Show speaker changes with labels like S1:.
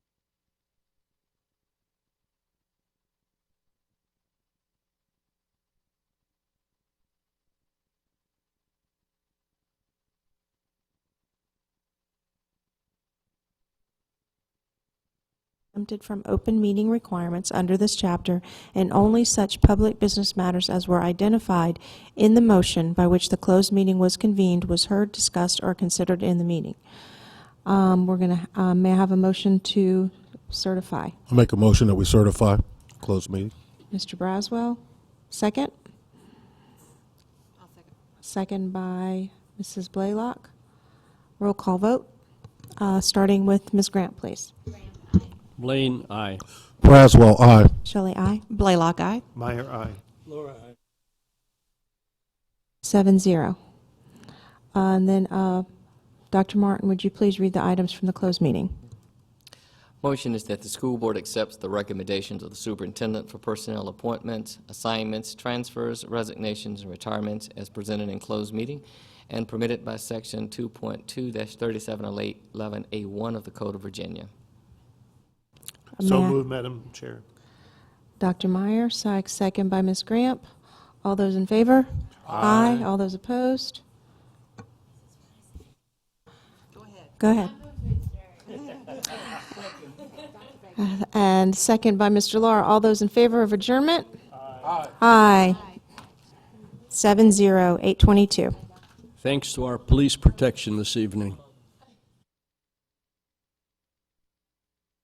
S1: exempted from open meeting requirements under this chapter, and only such public business matters as were identified in the motion by which the closed meeting was convened was heard, discussed, or considered in the meeting. Um, We're going to, may I have a motion to certify?
S2: I make a motion that we certify closed meeting.
S1: Mr. Braswell, second? second. by Mrs. Blaylock. Roll call vote, uh, starting with Ms. Grant, please.
S3: Blaine, aye.
S2: Braswell, aye.
S1: Shelley, aye.
S4: Blaylock, aye.
S5: Meyer, aye.
S1: Seven zero. Uh, And then, uh, Dr. Martin, would you please read the items from the closed meeting?
S6: Motion is that the school board accepts the recommendations of the superintendent for personnel appointments, assignments, transfers, resignations, and retirements as presented in closed meeting and permitted by Section oh 2.2-3711A1 of the Code of Virginia.
S5: So
S1: May I-
S5: moved, Madam Chair.
S1: Dr. Meyer, Sykes, second by Ms. Gramp. All those in favor? Aye. All those opposed? Go ahead. And second by Mr. Laura. All those in favor of adjournment? Aye. Aye. Seven zero, eight twenty-two.
S3: Thanks to our police protection this evening.